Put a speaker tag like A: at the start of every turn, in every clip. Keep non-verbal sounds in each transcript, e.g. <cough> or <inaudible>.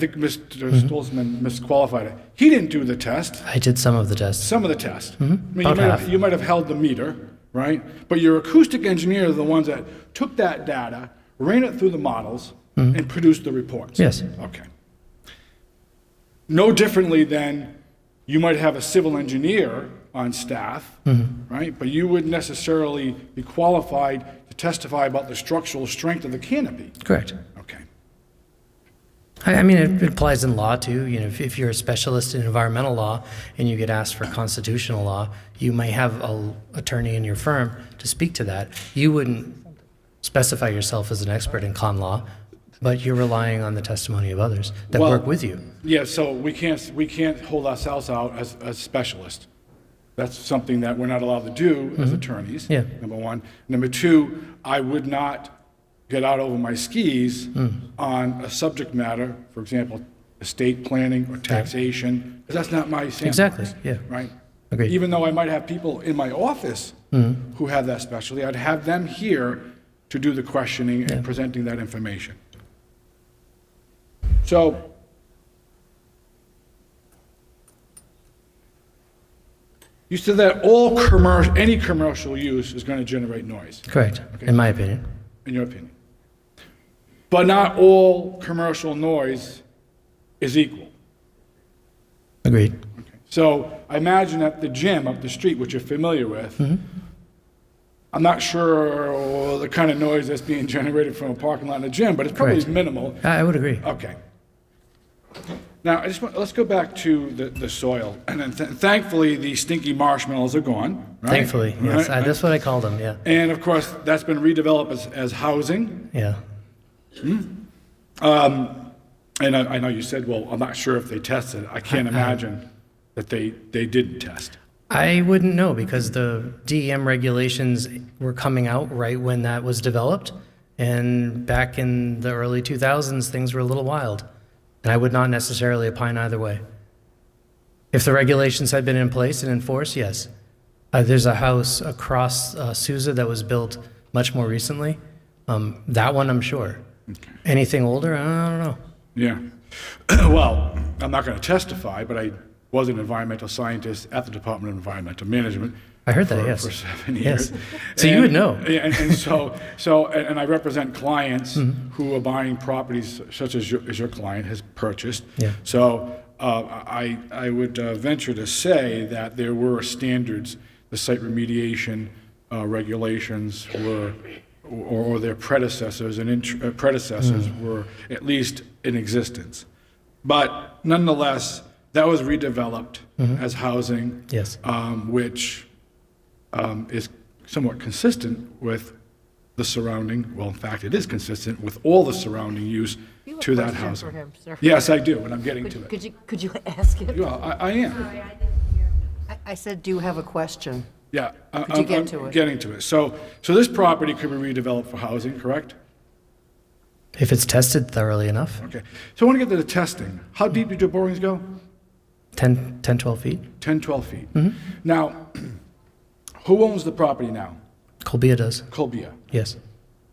A: think Mr. Stolzman misqualified it. He didn't do the test,
B: I did some of the tests.
A: some of the test. I mean, you
B: Mm-hmm. About
A: might, have,
B: half.
A: you might have held the meter, right? But your acoustic engineers are the ones that took that data, ran it through the models, and produced the reports.
B: Mm-hmm. Yes.
A: Okay. No differently than you might have a civil engineer on staff,
B: Mm-hmm.
A: right? But you wouldn't necessarily be qualified to testify about the structural strength of the canopy.
B: Correct.
A: Okay.
B: I, I mean, it applies in law too. You know, if, if you're a specialist in environmental law and you get asked for constitutional law, you may have an attorney in your firm to speak to that. You wouldn't specify yourself as an expert in con law, but you're relying on the testimony of others that
A: Well-
B: work with you.
A: Yeah, so we can't, we can't hold ourselves out as, as specialists. That's something that we're not allowed to do as attorneys.
B: Mm-hmm. Yeah.
A: Number one. Number two, I would not get out over my skis
B: Mm.
A: on a subject matter, for example, estate planning or taxation, because that's not my sandbox.
B: Exactly, yeah.
A: Right?
B: Agreed.
A: Even though I might have people in my office who have that specialty, I'd have them here to do the questioning and presenting that information. So you said that all commercial, any commercial use is going to generate noise,
B: Correct, in my opinion.
A: in your opinion. But not all commercial noise is equal.
B: Agreed.
A: So I imagine that the gym up the street, which you're familiar with,
B: Mm-hmm.
A: I'm not sure the kind of noise that's being generated from a parking lot in a gym, but it's probably
B: Correct.
A: minimal.
B: I, I would agree.
A: Okay. Now, I just want, let's go back to the, the soil. And then th- thankfully, the stinky marshmallows are gone. right?
B: Thankfully, yes.
A: Right,
B: I, that's what I called them, yeah.
A: And of course, that's been redeveloped as, as housing.
B: Yeah.
A: And I, I know you said, well, I'm not sure if they tested. I can't
B: Uh-huh.
A: imagine that they, they didn't test.
B: I wouldn't know because the DEM regulations were coming out right when that was developed. And back in the early 2000s, things were a little wild. And I would not necessarily opine either way. If the regulations had been in place and enforced, yes. Uh, there's a house across uh, Sousa that was built much more recently. Um, that one, I'm sure. Anything older? I don't know.
A: Yeah. <clears throat> Well, I'm not going to testify, but I was an environmental scientist at the Department of Environmental Management.
B: I heard that,
A: for-
B: yes.
A: For seven
B: Yes.
A: years.
B: So you
A: And-
B: would know.
A: Yeah, And, and so, so, and and I represent clients
B: Mm-hmm.
A: who are buying properties such as your, as your client has purchased.
B: Yeah.
A: So uh, I, I would uh, venture to say that there were standards, the site remediation uh, regulations were, or, or their predecessors and int- uh, predecessors
B: Mm.
A: were at least in existence. But nonetheless, that was redeveloped as housing,
B: Mm-hmm. Yes.
A: um, which um, is somewhat consistent with the surrounding, well, in fact, it is consistent with all the surrounding use
C: You have a
A: to that
C: question
A: housing.
C: for him, sir.
A: Yes, I do, and I'm getting to
C: Could
A: it.
C: could you, could you <laughs> ask it?
A: Well, I, I am,
C: I- I said, do you have a question?
A: yeah. I-
C: Could you
A: I'm-
C: get
A: I'm
C: to it?
A: Getting to it. So, so this property could be redeveloped for housing, correct?
B: If it's tested thoroughly enough,
A: Okay. So I want to get to the testing. How deep did your borings go?
B: 10, 10 12 feet.
A: 10, 12 feet. Now, <clears throat> who owns the property now?
B: Colbia does.
A: Colbia.
B: Yes.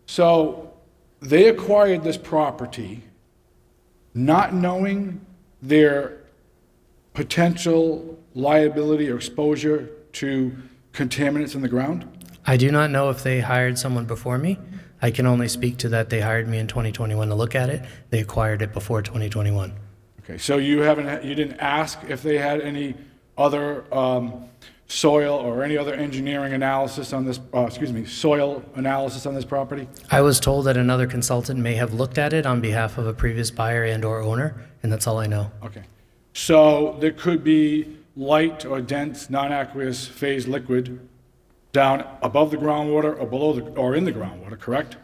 A: So they acquired this property not knowing their potential liability or exposure to contaminants in the ground?
B: I do not know if they hired someone before me. I can only speak to that they hired me in 2021 to look at it. They acquired it before 2021.
A: Okay, so you haven't, you didn't ask if they had any other um, soil or any other engineering analysis on this, uh, excuse me, soil analysis on this property?
B: I was told that another consultant may have looked at it on behalf of a previous buyer and or owner, and that's all I know.
A: Okay. So there could be light or dense, non-aqueous phase liquid down above the groundwater or below the, or in the groundwater, correct?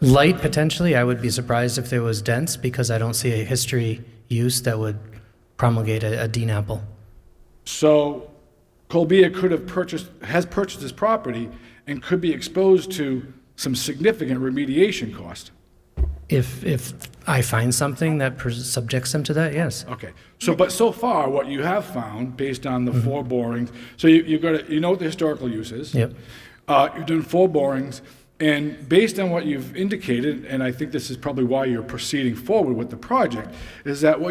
B: Light potentially, I would be surprised if there was dense because I don't see a history use that would promulgate a, a Dean apple.
A: So Colbia could have purchased, has purchased this property and could be exposed to some significant remediation cost.
B: If if I find something that pres subjects them to that, yes.
A: Okay. So, but so far, what you have found, based on the four borings, so you, you've got, a- you know what the historical use is.
B: Yep.
A: Uh, you've done four borings, And based on what you've indicated, and I think this is probably why you're proceeding forward with the project, is that what